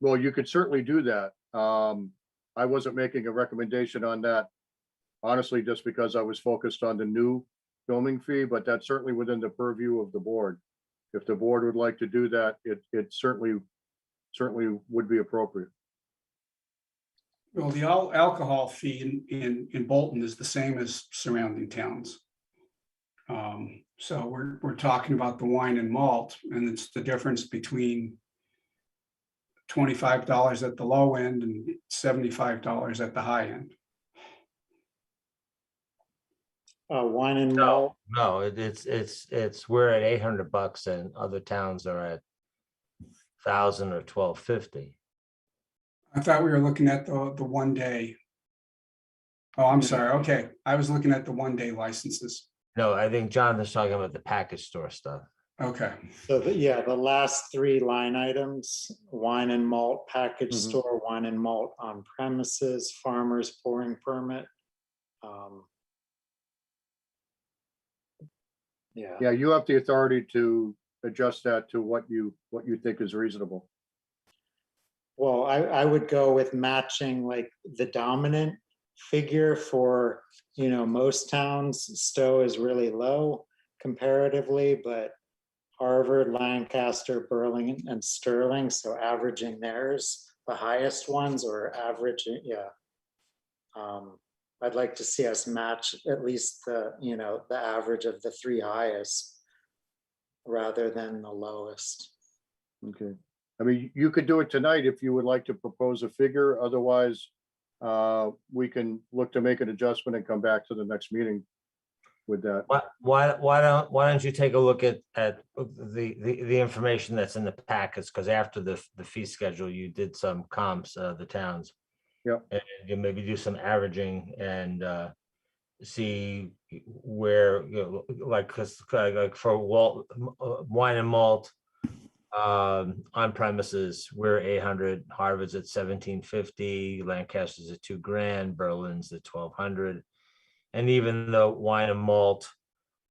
well, you could certainly do that. Um, I wasn't making a recommendation on that. Honestly, just because I was focused on the new filming fee, but that's certainly within the purview of the board. If the board would like to do that, it, it certainly, certainly would be appropriate. Well, the al- alcohol fee in, in, in Bolton is the same as surrounding towns. Um, so we're, we're talking about the wine and malt, and it's the difference between twenty-five dollars at the low end and seventy-five dollars at the high end. Uh, wine and No. malt, No, it- it's, it's, it's, we're at eight hundred bucks and other towns are at thousand or twelve fifty. I thought we were looking at the, the one day. Oh, I'm sorry, okay, I was looking at the one-day licenses, No, I think Jonathan's talking about the package store stuff. okay. so the- yeah, the last three line items, wine and malt package Mhm. store, wine and malt on premises, farmers pouring permit. um, Yeah, Yeah, you have the authority to adjust that to what you, what you think is reasonable. well, I, I would go with matching like the dominant figure for, you know, most towns, Stowe is really low comparatively, but Harvard, Lancaster, Burlington, and Sterling, so averaging theirs, the highest ones or averaging, yeah. Um, I'd like to see us match at least the, you know, the average of the three highest rather than the lowest. Okay. I mean, you could do it tonight if you would like to propose a figure. Otherwise, uh, we can look to make an adjustment and come back to the next meeting with that. Why, why, why don't, why don't you take a look at, at the, the, the information that's in the packets? Because after the, the fee schedule, you did some comps of the towns. Yep. And you maybe do some averaging and, uh, see where, you know, like, because, like, for Walt, uh, wine and malt, um, on premises, we're eight hundred, Harvard's at seventeen fifty, Lancaster's at two grand, Berlin's at twelve hundred. And even the wine and malt,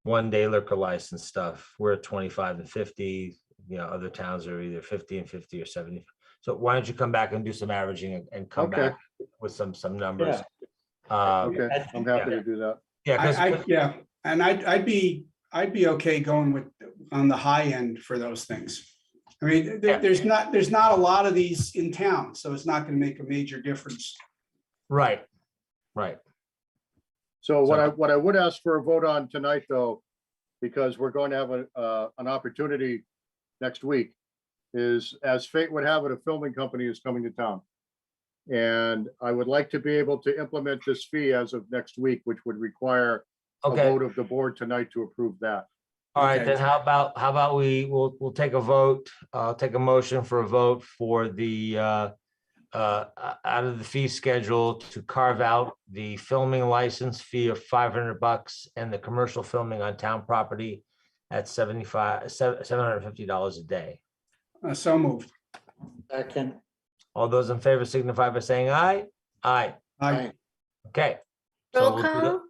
one day liquor license stuff, we're at twenty-five and fifty, you know, other towns are either fifty and fifty or seventy. So why don't you come back and do some averaging and- and come Okay. back with some, some numbers? Uh, Okay, I'm happy to do that. yeah, I, I, because, yeah, and I'd, I'd be, I'd be okay going with, on the high end for those things. I mean, Yeah. there, there's not, there's not a lot of these in town, so it's not gonna make a major difference. right, right. So what So- I, what I would ask for a vote on tonight, though, because we're going to have a, uh, an opportunity next week, is as fate would have it, a filming company is coming to town. And I would like to be able to implement this fee as of next week, which would require a Okay, vote of the board tonight to approve that. all right, Okay. then how about, how about we, we'll, we'll take a vote, uh, take a motion for a vote for the, uh, uh, o- out of the fee schedule to carve out the filming license fee of five hundred bucks and the commercial filming on town property at seventy-five, seven, seven hundred and fifty dollars a day. Uh, so moved. Second, All those in favor signify by saying aye. Aye, Aye, okay. So Roll we'll do that. call.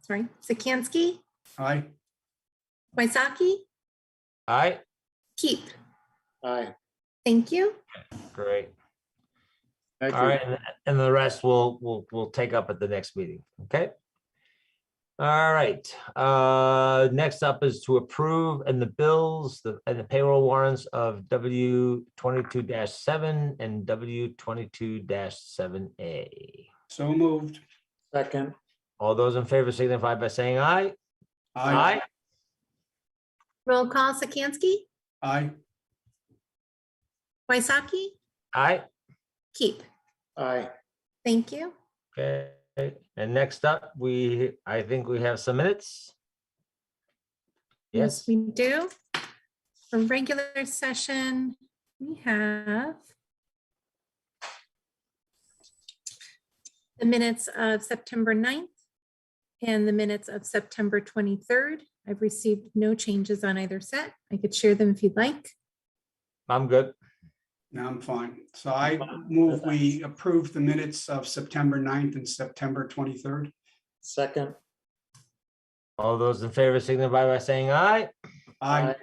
Sorry, Sikansky, aye, Waisaki, Aye, Keep. aye. Thank you. great. Thank All you. right, and- and the rest we'll, we'll, we'll take up at the next meeting, okay? All right, uh, next up is to approve and the bills, the, and the payroll warrants of W twenty-two seven and W twenty-two seven A. so moved. Second, All those in favor signify by saying aye. Aye, Roll call Sikansky, aye, Waisaki, Aye, Keep. aye. Thank you. okay, and next up, we, I think we have some minutes. Yes, We do. For regular session, we have the minutes of September 9th and the minutes of September 23rd. I've received no changes on either set. I could share them if you'd like. I'm good. now I'm fine. So I move, we approve the minutes of September 9th and September twenty-third. Second, All those in favor signify by saying aye. Aye,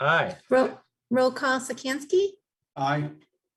Aye. Roll, roll call Sikansky, aye,